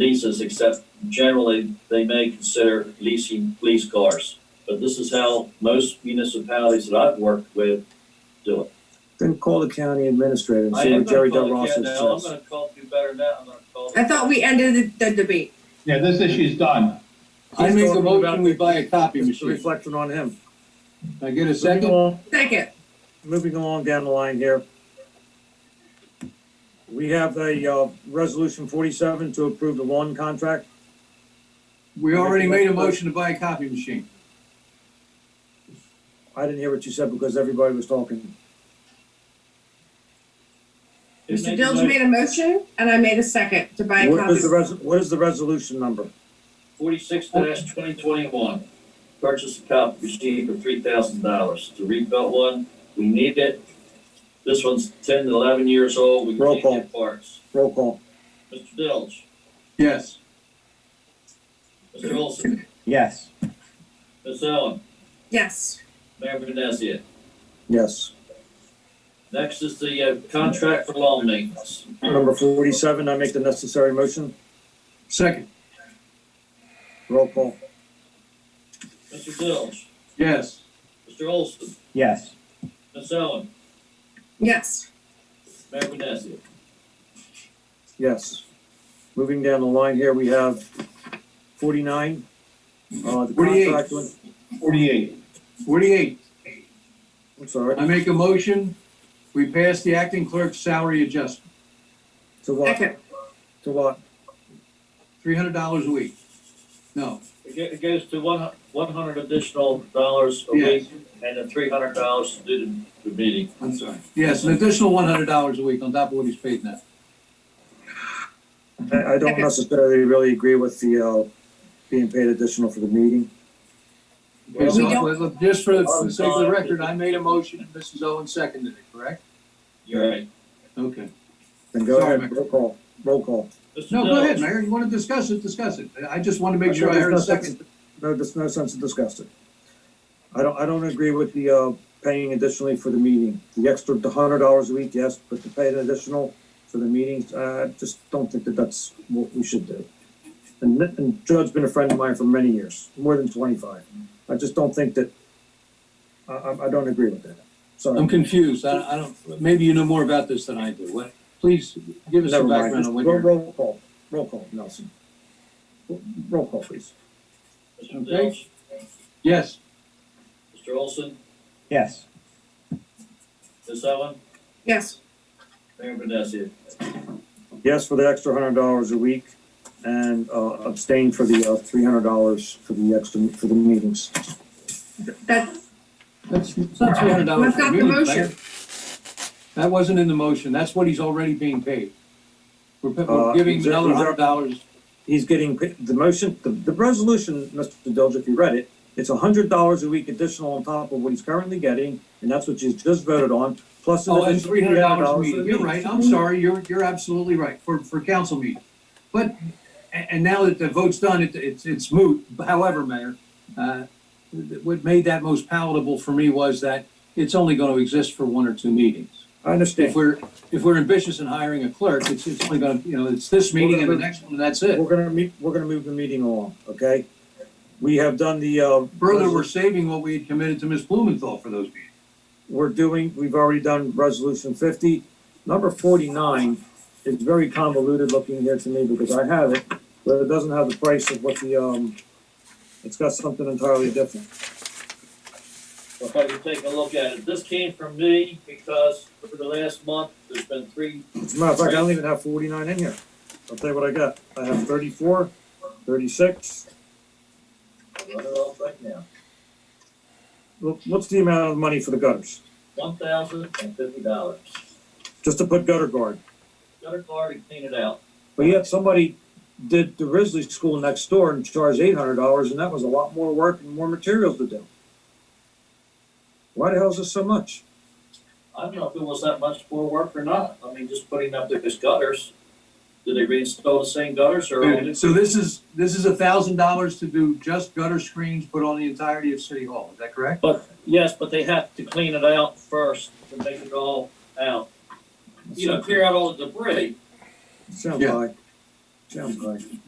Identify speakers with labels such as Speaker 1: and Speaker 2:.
Speaker 1: leases, except generally they may consider leasing police cars. But this is how most municipalities that I've worked with do it.
Speaker 2: Then call the county administrator and
Speaker 1: I
Speaker 2: see
Speaker 1: am
Speaker 2: what Jerry
Speaker 1: gonna
Speaker 2: Del
Speaker 1: call
Speaker 2: Rosso
Speaker 1: again now. I'm
Speaker 2: says.
Speaker 1: gonna call, do better now, I'm gonna call.
Speaker 3: I thought we ended the, the debate.
Speaker 4: Yeah, this issue's done.
Speaker 5: I make a
Speaker 2: Just
Speaker 5: motion, we buy a copy
Speaker 2: Just
Speaker 5: machine.
Speaker 2: Reflecting on him.
Speaker 5: I get a
Speaker 2: Moving
Speaker 5: second?
Speaker 2: along-
Speaker 3: Second,
Speaker 2: Moving along down the line here. We have a, uh, resolution forty-seven to approve the lawn contract.
Speaker 5: We already made a motion to buy a copy machine.
Speaker 2: I didn't hear what you said because everybody was talking.
Speaker 1: Make a
Speaker 3: Mr. Dilge
Speaker 1: motion.
Speaker 3: made a motion and I made a second to buy a
Speaker 2: What
Speaker 3: copy.
Speaker 2: is the res, what is the resolution number?
Speaker 1: Forty-six twenty twenty-one, purchase a copy machine for three thousand dollars to rebuild one. We need it. This one's ten to eleven years old, we
Speaker 2: Roll
Speaker 1: can't
Speaker 2: call.
Speaker 1: get parts.
Speaker 2: Roll call.
Speaker 1: Mr. Dilge,
Speaker 5: Yes.
Speaker 1: Mr. Olson,
Speaker 2: Yes.
Speaker 1: Ms. Owen,
Speaker 3: Yes,
Speaker 1: Mayor Vinesia.
Speaker 2: Yes.
Speaker 1: Next is the uh, contract for lawn maintenance.
Speaker 2: Number forty-seven, I make the necessary motion.
Speaker 5: Second?
Speaker 2: Roll call.
Speaker 1: Mr. Dilge,
Speaker 5: Yes.
Speaker 1: Mr. Olson,
Speaker 2: Yes.
Speaker 1: Ms. Owen,
Speaker 3: yes,
Speaker 1: Mayor Vinesia.
Speaker 2: Yes. Moving down the line here, we have forty-nine. Uh, the
Speaker 5: 48.
Speaker 2: contract with,
Speaker 4: Forty-eight.
Speaker 5: Forty-eight,
Speaker 2: I'm sorry,
Speaker 5: I make a motion, we pass the acting clerk's salary adjustment,
Speaker 2: to what,
Speaker 3: second,
Speaker 2: to what?
Speaker 5: three hundred dollars a week. No,
Speaker 1: It go- It goes to one, one hundred additional dollars a
Speaker 5: Yes.
Speaker 1: week and then three hundred dollars to do the, the meeting.
Speaker 5: I'm sorry. Yes, an additional one hundred dollars a week on top of what he's paid now.
Speaker 2: I, I don't
Speaker 3: Okay.
Speaker 2: necessarily really agree with the, uh, being paid additional for the meeting.
Speaker 5: Okay, so,
Speaker 3: We don't-
Speaker 5: let- let- Just for the for the sake of the record, I made a motion and Mrs. Owen seconded it, correct?
Speaker 1: You're right.
Speaker 5: Okay.
Speaker 2: Then go
Speaker 5: Sorry,
Speaker 2: ahead,
Speaker 5: Mayor.
Speaker 2: roll call, roll call.
Speaker 1: Mr.
Speaker 5: No, go ahead,
Speaker 1: Dilge,
Speaker 5: Mayor, you wanna discuss it, discuss it. I just wanna make sure I heard a second.
Speaker 2: No, there's no sense of discussing. I don't, I don't agree with the, uh, paying additionally for the meeting. The extra hundred dollars a week, yes, but to pay an additional for the meetings, uh, I just don't think that that's what we should do. And, and Judd's been a friend of mine for many years, more than twenty-five. I just don't think that, I, I, I don't agree with that.
Speaker 5: I'm
Speaker 2: Sorry.
Speaker 5: confused. I, I don't, maybe you know more about this than I do. What, please give us
Speaker 2: Never
Speaker 5: some
Speaker 2: mind.
Speaker 5: background
Speaker 2: Just
Speaker 5: on what
Speaker 2: Roll,
Speaker 5: you're.
Speaker 2: roll call, roll call, Nelson. Roll call, please.
Speaker 1: Mr.
Speaker 5: Okay.
Speaker 1: Dilge,
Speaker 5: Yes,
Speaker 1: Mr. Olson,
Speaker 2: Yes.
Speaker 1: Ms. Owen,
Speaker 3: yes,
Speaker 1: Mayor Vinesia.
Speaker 2: yes for the extra hundred dollars a week and uh, abstain for the uh, three hundred dollars for the extra, for the meetings.
Speaker 3: that,
Speaker 5: that's, it's not three hundred dollars.
Speaker 3: That's not the motion.
Speaker 5: That wasn't in the motion. That's what he's already being paid. We're, pa-
Speaker 2: Uh,
Speaker 5: we're giving
Speaker 2: is
Speaker 5: him
Speaker 2: that-
Speaker 5: another
Speaker 2: is that-
Speaker 5: hundred dollars.
Speaker 2: He's getting, pa- the motion, the, the resolution, Mr. Dilge, if you read it, it's hundred dollars a week additional on top of what he's currently getting, and that's what you just voted on, plus. an
Speaker 5: Oh, and
Speaker 2: additional
Speaker 5: three hundred dollars a
Speaker 2: $300 for
Speaker 5: meeting.
Speaker 2: the
Speaker 5: You're
Speaker 2: meetings.
Speaker 5: right. I'm sorry. You're, you're absolutely right for, for council meeting. But, and, and now that the vote's done, it, it's, it's moot. However, Mayor, uh, what made that most palatable for me was that it's only gonna exist for one or two meetings.
Speaker 2: I
Speaker 5: if
Speaker 2: understand.
Speaker 5: we're, if we're ambitious in hiring a clerk, it's, it's only gonna, you know, it's this meeting and the next one, and that's it.
Speaker 2: We're gonna meet, we're gonna move the meeting along, okay? We have done the, uh.
Speaker 5: Further, we're saving what we had committed to Ms. Blumenthal for those meetings.
Speaker 2: we're doing, we've already done resolution fifty. Number forty-nine is very convoluted looking here to me because I have it, but it doesn't have the price of what the, um, it's got something entirely different.
Speaker 1: If I could take a look at it, this came from me because for the last month, there's been three,
Speaker 2: As a matter of fact, I don't even have forty-nine in here. I'll tell you what I got. I have thirty-four, thirty-six.
Speaker 1: I'll run it off right now,
Speaker 2: Look, What's the amount of money for the gutters?
Speaker 1: one thousand and fifty dollars.
Speaker 2: Just to put gutter guard.
Speaker 1: Got a car to clean it out.
Speaker 2: But yet somebody did the Risley School next door and charged eight hundred dollars, and that was a lot more work and more materials to do. Why the hell is this so much?
Speaker 1: I don't know if it was that much more work or not. I mean, just putting up those gutters. Did they reinstall the same gutters or? only-
Speaker 5: So this is, this is a thousand dollars to do just gutter screens put on the entirety of City Hall, is that correct?
Speaker 1: But, yes, but they have to clean it out first to make it all out. You know, clear out all the debris.
Speaker 2: Sounds
Speaker 5: Yeah.
Speaker 2: high. Sounds high.